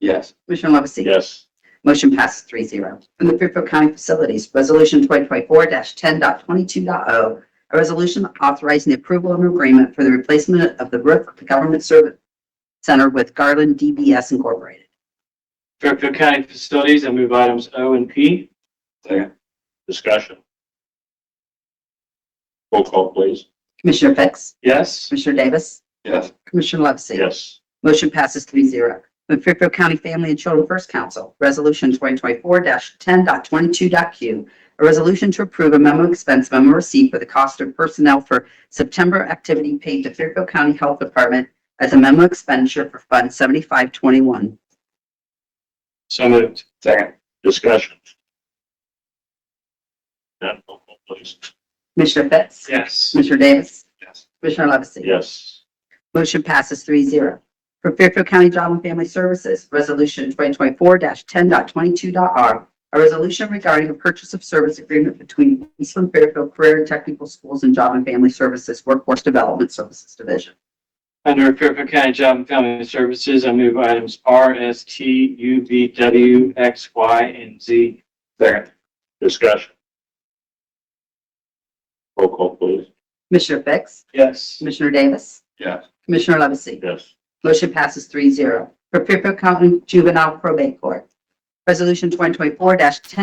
Yes. Commissioner Levesey? Yes. Motion passes three zero. From the Fairfield County Facilities, Resolution 2024-10.22.o, oh, a resolution authorizing the approval of an agreement for the replacement of the roof of the Government Service Center with Garland DBS Incorporated. Fairfield County Facilities, I move items O and P. Second. Discussion. Roll call, please. Commissioner Fix? Yes. Commissioner Davis? Yes. Commissioner Levesey? Yes. Motion passes three zero. From Fairfield County Family and Children First Council, Resolution 2024-10.22.q, a resolution to approve a memo expense memo receipt for the cost of personnel for September activity paid to Fairfield County Health Department as a memo expenditure for Fund 7521. So moved. Second. Discussion. None, roll call, please. Commissioner Fix? Yes. Commissioner Davis? Yes. Commissioner Levesey? Yes. Motion passes three zero. For Fairfield County Job and Family Services, Resolution 2024-10.22.r, a resolution regarding a purchase of service agreement between Eastland Fairfield Career and Technical Schools and Job and Family Services Workforce Development Services Division. Under Fairfield County Job and Family Services, I move items R, S, T, U, V, W, X, Y, and Z. Second. Discussion. Roll call, please. Commissioner Fix? Yes. Commissioner Davis? Yes. Commissioner Levesey? Yes. Motion passes three zero. For Fairfield County Juvenile Probate Court, Resolution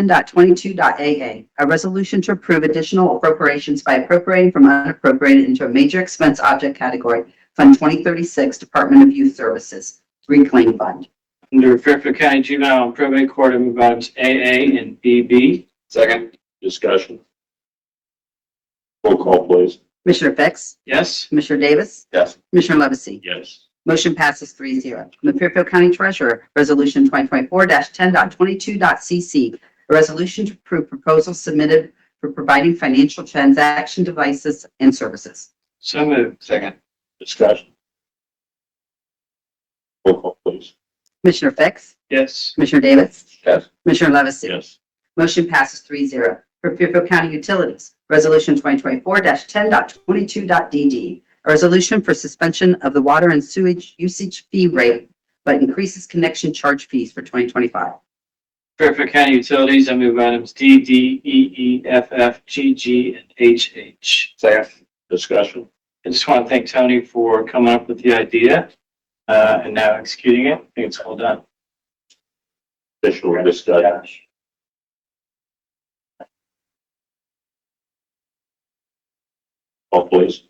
2024-10.22.a.a. A resolution to approve additional appropriations by appropriating from unappropriated into a major expense object category, Fund 2036, Department of Youth Services, Reclaim Fund. Under Fairfield County Juvenile and Probate Court, I move items AA and BB. Second. Discussion. Roll call, please. Commissioner Fix? Yes. Commissioner Davis? Yes. Commissioner Levesey? Yes. Motion passes three zero. From the Fairfield County Treasurer, Resolution 2024-10.22.c.c. A resolution to approve proposals submitted for providing financial transaction devices and services. So moved. Second. Discussion. Roll call, please. Commissioner Fix? Yes. Commissioner Davis? Yes. Commissioner Levesey? Yes. Motion passes three zero. For Fairfield County Utilities, Resolution 2024-10.22.d.d. A resolution for suspension of the water and sewage usage fee rate, but increases connection charge fees for 2025. Fairfield County Utilities, I move items D, D, E, E, F, F, G, G, and H, H. Second. Discussion. I just want to thank Tony for coming up with the idea, uh, and now executing it. I think it's well done. Additional discussion. Call, please.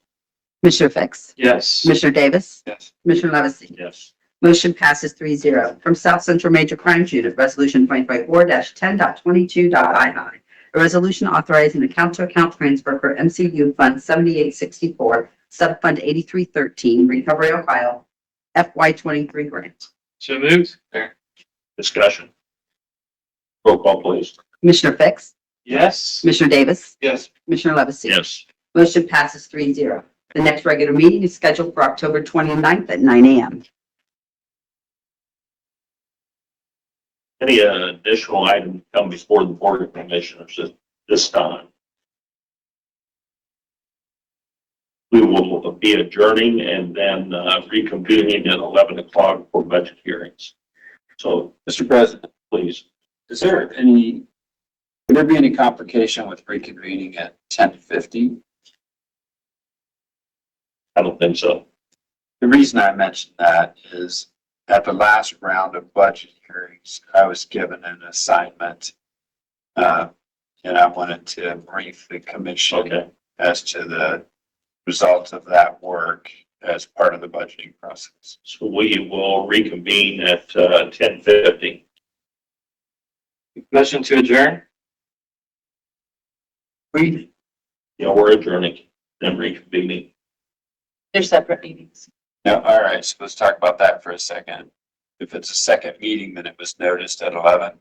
Commissioner Fix? Yes. Commissioner Davis? Yes. Commissioner Levesey? Yes. Motion passes three zero. From South Central Major Crimes Unit, Resolution 2024-10.22.II. A resolution authorizing account-to-account transfer for MCU Fund 7864, Subfund 8313, Recovery Ohio, FY23 grant. So moved. There. Discussion. Roll call, please. Commissioner Fix? Yes. Commissioner Davis? Yes. Commissioner Levesey? Yes. Motion passes three zero. The next regular meeting is scheduled for October 29th at 9 a.m. Any uh, additional item come before the board of commissioners at this time? We will be adjourning and then uh, reconvening at 11 o'clock for budget hearings. So, Mr. President, please. is there any, would there be any complication with reconvening at ten fifty? I don't think so. The reason I mentioned that is at the last round of budget hearings, I was given an assignment. uh, And I wanted to brief the commission Okay. as to the results of that work as part of the budgeting process. So we will reconvene at uh, 10:50. Motion to adjourn? We, You know, we're adjourning and reconvening. They're separate meetings. now, all right, so let's talk about that for a second. If it's a second meeting, then it was noticed at eleven.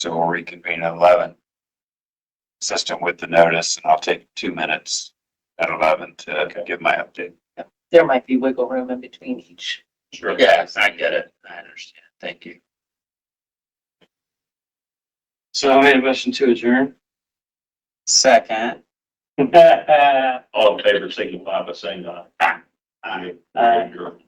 So we'll reconvene at eleven. Consistent with the notice, and I'll take two minutes at eleven to give my update. there might be wiggle room in between each Sure. Yes, I get it. I understand. Thank you. So I made a motion to adjourn. Second. Aye. All in favor, signify by saying aye. Aye. Adjourn.